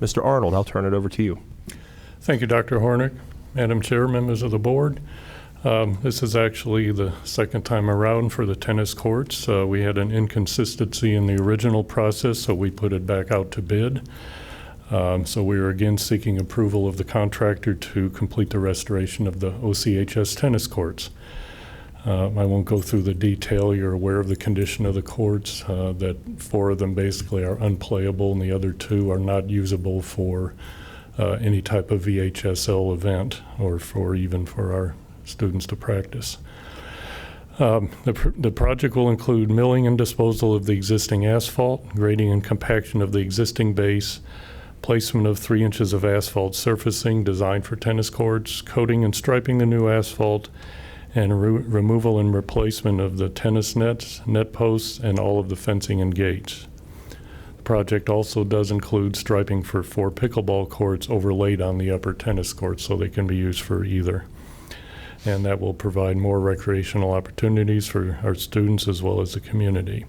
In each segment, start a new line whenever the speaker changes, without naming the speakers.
Mr. Arnold, I'll turn it over to you.
Thank you, Dr. Hornick, Madam Chair, members of the board. Um, This is actually the second time around for the tennis courts. Uh, We had an inconsistency in the original process, so we put it back out to bid. Um, So we are again seeking approval of the contractor to complete the restoration of the OCHS tennis courts. Uh, I won't go through the detail. You're aware of the condition of the courts, uh, that four of them basically are unplayable and the other two are not usable for uh, any type of VHSL event or for even for our students to practice. Um, The pr- the project will include milling and disposal of the existing asphalt, grading and compaction of the existing base, placement of three inches of asphalt surfacing designed for tennis courts, coating and striping the new asphalt, and re- removal and replacement of the tennis nets, net posts, and all of the fencing and gates. The project also does include striping for four pickleball courts overlaid on the upper tennis courts so they can be used for either. And that will provide more recreational opportunities for our students as well as the community.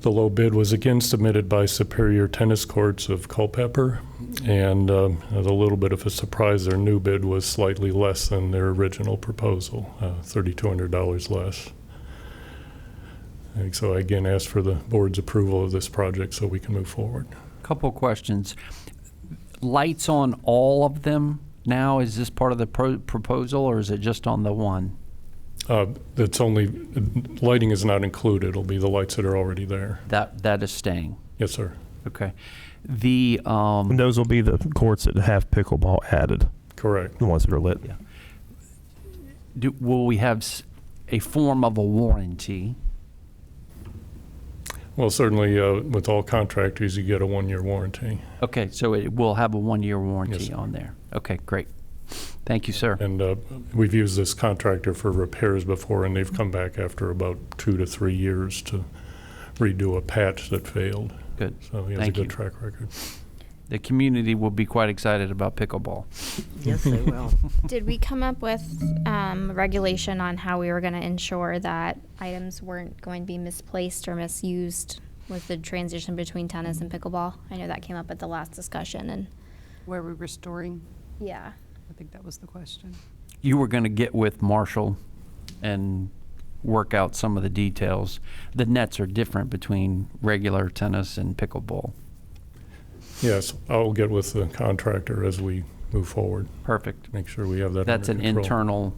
The low bid was again submitted by Superior Tennis Courts of Culpeper, and um, as a little bit of a surprise, their new bid was slightly less than their original proposal, uh, $3,200 less. And so I again ask for the board's approval of this project so we can move forward.
Couple questions. Lights on all of them now? Is this part of the pro- proposal or is it just on the one?
Uh, That's only, lighting is not included, it'll be the lights that are already there.
That that is staying.
Yes, sir,
Okay. The um,
And those will be the courts that have pickleball added,
correct.
the ones that are lit.
do, will we have s- a form of a warranty?
Well, certainly uh, with all contractors, you get a one-year warranty.
Okay, so it will have a one-year warranty
sir.
on there. Okay, great. Thank you, sir.
And uh, we've used this contractor for repairs before, and they've come back after about two to three years to redo a patch that failed.
Good.
So he has a
Thank you.
good track record.
The community will be quite excited about pickleball.
Yes, they will.
Did we come up with um, regulation on how we were going to ensure that items weren't going to be misplaced or misused with the transition between tennis and pickleball? I know that came up at the last discussion, and
Were we restoring?
yeah,
I think that was the question.
You were going to get with Marshall and work out some of the details. The nets are different between regular tennis and pickleball.
Yes, I'll get with the contractor as we move forward,
Perfect.
make sure we have that
That's
under
an
control.
internal,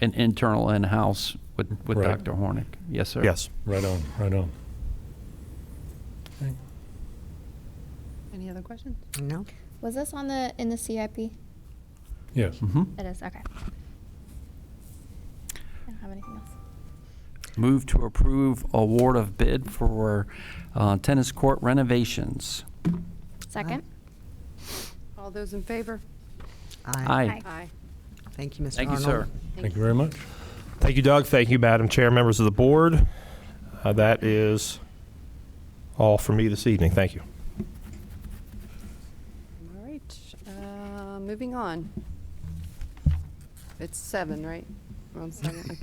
an internal in-house with, with
Right.
Dr. Hornick. Yes, sir.
Yes.
Right on, right on.
Any other questions?
No?
was this on the in the CIP? It
Yes.
hmm
is okay. I don't have anything else.
Move to approve award of bid for uh, tennis court renovations.
Second.
All those in favor?
Uh,
Aye.
Aye.
Thank you, Mr.
Thank you,
Arnold.
sir.
Thank you very much.
Thank you, Doug. Thank you, Madam Chair, members of the board. Uh, that is all for me this evening. Thank you.
All right, uh, moving on. It's seven, right? We're on seven,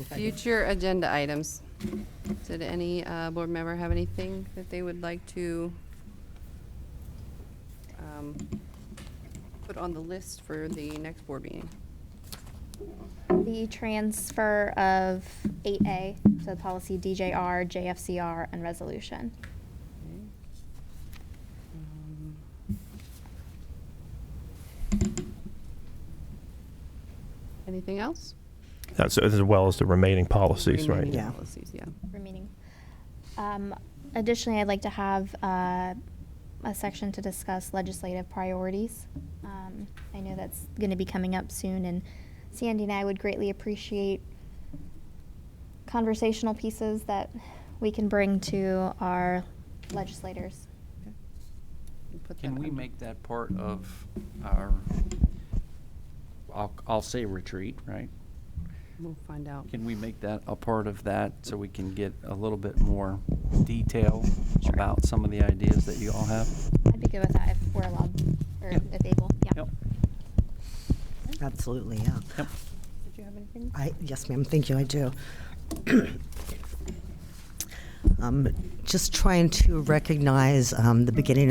okay. Future agenda items. Did any uh, board member have anything that they would like to um, put on the list for the next board meeting?
The transfer of 8A, so policy DJR, JFCR, and resolution.
Um, Anything else?
That's as well as the remaining policies, right?
Remaining
Yeah.
Policies, yeah.
remaining. Um, Additionally, I'd like to have uh, a section to discuss legislative priorities. Um, I know that's going to be coming up soon, and Sandy and I would greatly appreciate conversational pieces that we can bring to our legislators.
We'll put
Can
that
we
under-
make that part of our, I'll, I'll say retreat, right?
We'll find out.
Can we make that a part of that so we can get a little bit more detail about some of the ideas that you all have?
I'd be good with that if we're allowed, or
Yeah.
if able, yeah.
Yep.
Absolutely, yeah.
Yep.
Did you have anything?
I, yes, ma'am, thank you, I do. Um, Just trying to recognize um, the beginning of.